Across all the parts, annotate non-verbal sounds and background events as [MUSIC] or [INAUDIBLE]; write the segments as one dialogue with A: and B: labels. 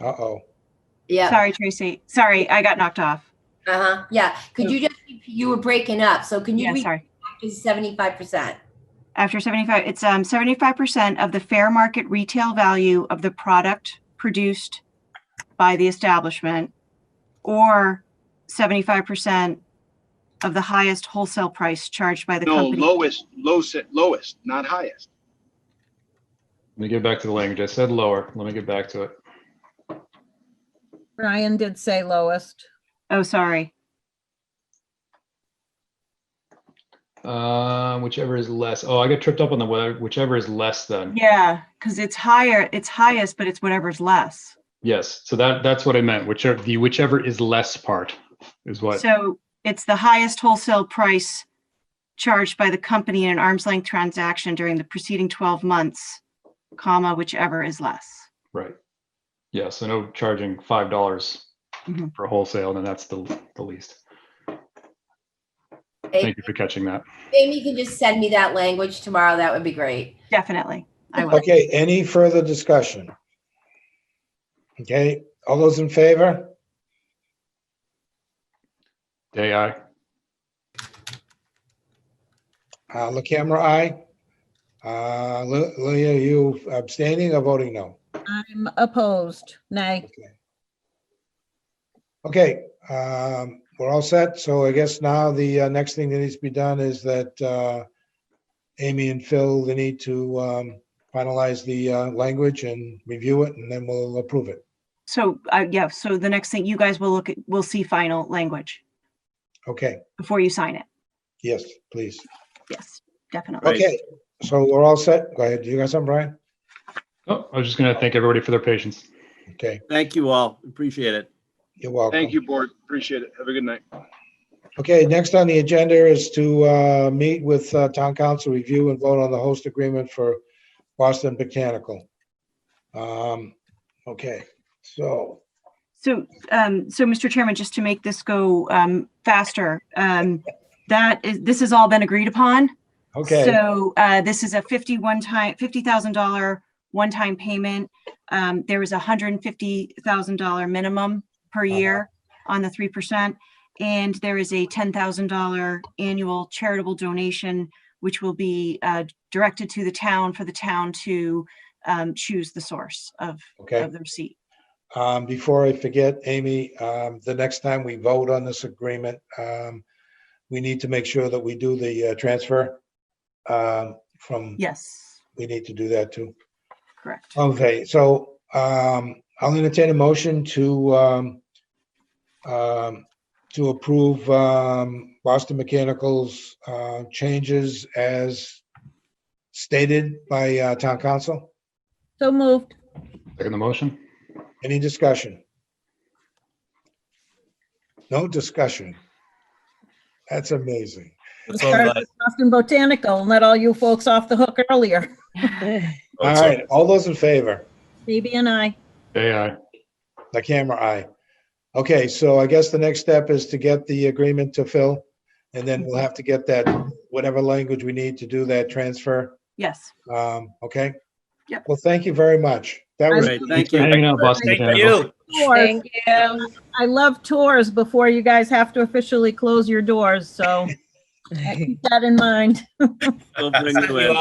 A: Uh-oh.
B: Yeah.
C: Sorry, Tracy. Sorry, I got knocked off.
B: Uh-huh. Yeah. Could you just, you were breaking up. So can you
C: Yeah,
B: read
C: sorry.
B: to 75%?
C: After 75, it's um, 75% of the fair market retail value of the product produced by the establishment or 75% of the highest wholesale price charged by the
D: No,
C: company.
D: lowest, low, lowest, not highest.
E: Let me get back to the language. I said lower. Let me get back to it.
F: Brian did say lowest.
C: Oh, sorry.
E: Um, whichever is less. Oh, I got tripped up on the weather. Whichever is less than.
C: Yeah, because it's higher, it's highest, but it's whatever's less.
E: Yes. So that that's what I meant. Whichever the whichever is less part is what.
C: So it's the highest wholesale price charged by the company in an arm's length transaction during the preceding 12 months, comma, whichever is less.
E: right. Yeah. So no charging five dollars
C: Mhm.
E: for wholesale, and that's the the least.
B: Hey,
E: Thank you for catching that.
B: Amy can just send me that language tomorrow. That would be great.
C: Definitely. I will.
A: Okay, any further discussion? Okay, all those in favor?
E: Day I.
A: Uh, La camera, aye. Uh, Le- Leah, are you abstaining or voting no?
F: I'm opposed. Nay.
A: Okay. Okay, um, we're all set. So I guess now the uh, next thing that needs to be done is that uh, Amy and Phil, they need to um, finalize the uh, language and review it, and then we'll approve it.
C: So, uh, yeah, so the next thing you guys will look, at will see final language
A: Okay,
C: before you sign it.
A: yes, please.
C: Yes, definitely.
D: Right.
A: Okay, so we're all set. Go ahead. You got something, Brian?
E: Oh, I was just gonna thank everybody for their patience.
A: Okay,
G: Thank you all. Appreciate it.
A: you're welcome.
D: Thank you, board. Appreciate it. Have a good night.
A: Okay, next on the agenda is to uh, meet with uh, Town Council, review and vote on the host agreement for Boston Botanical. Um, Okay, so,
C: So, um, so Mr. Chairman, just to make this go, um, faster, um, that is, this has all been agreed upon.
A: okay,
C: So uh, this is a 51 time, $50,000 one-time payment. Um, There is a $150,000 minimum per
A: Uh-huh.
C: year on the 3%. And there is a $10,000 annual charitable donation, which will be uh, directed to the town for the town to um, choose the source of,
A: okay.
C: of the receipt.
A: Um, Before I forget, Amy, um, the next time we vote on this agreement, um, we need to make sure that we do the uh, transfer um, from,
C: Yes,
A: we need to do that too.
C: correct.
A: Okay, so um, I'll entertain a motion to um, um, to approve um, Boston Mechanical's uh, changes as stated by uh, town council.
F: So moved.
E: Second the motion.
A: Any discussion? No discussion. That's amazing.
F: Start with Boston Botanical and let all you folks off the hook earlier. [LAUGHS]
A: All right, all those in favor?
F: Phoebe and I.
E: Day I.
A: The camera eye. Okay, so I guess the next step is to get the agreement to Phil, and then we'll have to get that, whatever language we need to do that transfer.
C: Yes.
A: Um, okay?
C: Yep.
A: Well, thank you very much. That
G: All
A: was,
G: right, thank
E: For hanging
G: you.
E: out, Boston
G: Thank
E: Botanical.
G: you.
F: Tours. I love tours before you guys have to officially close your doors, so keep that in mind.
G: We'll bring you in.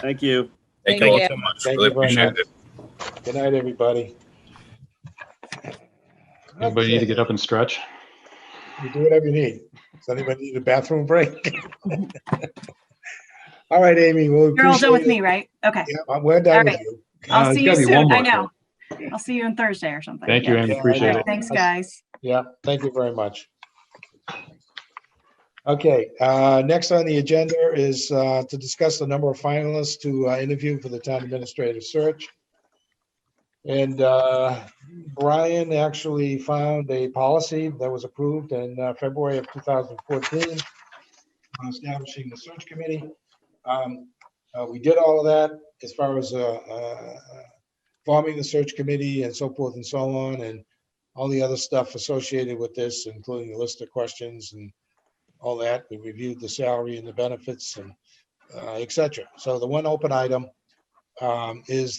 G: Thank you.
H: Thank you all so much.
A: Thank
H: Really
A: you very
H: appreciate
A: much.
H: it.
A: good night, everybody.
E: Anybody need to get up and stretch?
A: You do whatever you need. Does anybody need a bathroom break? [LAUGHS] All right, Amy, well.
C: You're all done with me, right? Okay.
A: Yeah, we're done with
C: All
A: you.
E: Uh,
C: I'll
E: it's
C: see you
E: gotta be one
C: soon. I
E: more.
C: know. I'll see you on Thursday or something.
E: Thank you,
C: Yeah.
E: Andy.
A: Yeah, I
E: Appreciate
A: know.
E: it.
C: Thanks, guys.
A: Yeah, thank you very much. Okay, uh, next on the agenda is uh, to discuss the number of finalists to uh, interview for the town administrative search. And uh, Brian actually found a policy that was approved in uh, February of 2014 on establishing the search committee. Um, uh, We did all of that as far as uh, uh, forming the search committee and so forth and so on. And all the other stuff associated with this, including the list of questions and all that. We reviewed the salary and the benefits and uh, et cetera. So the one open item um, is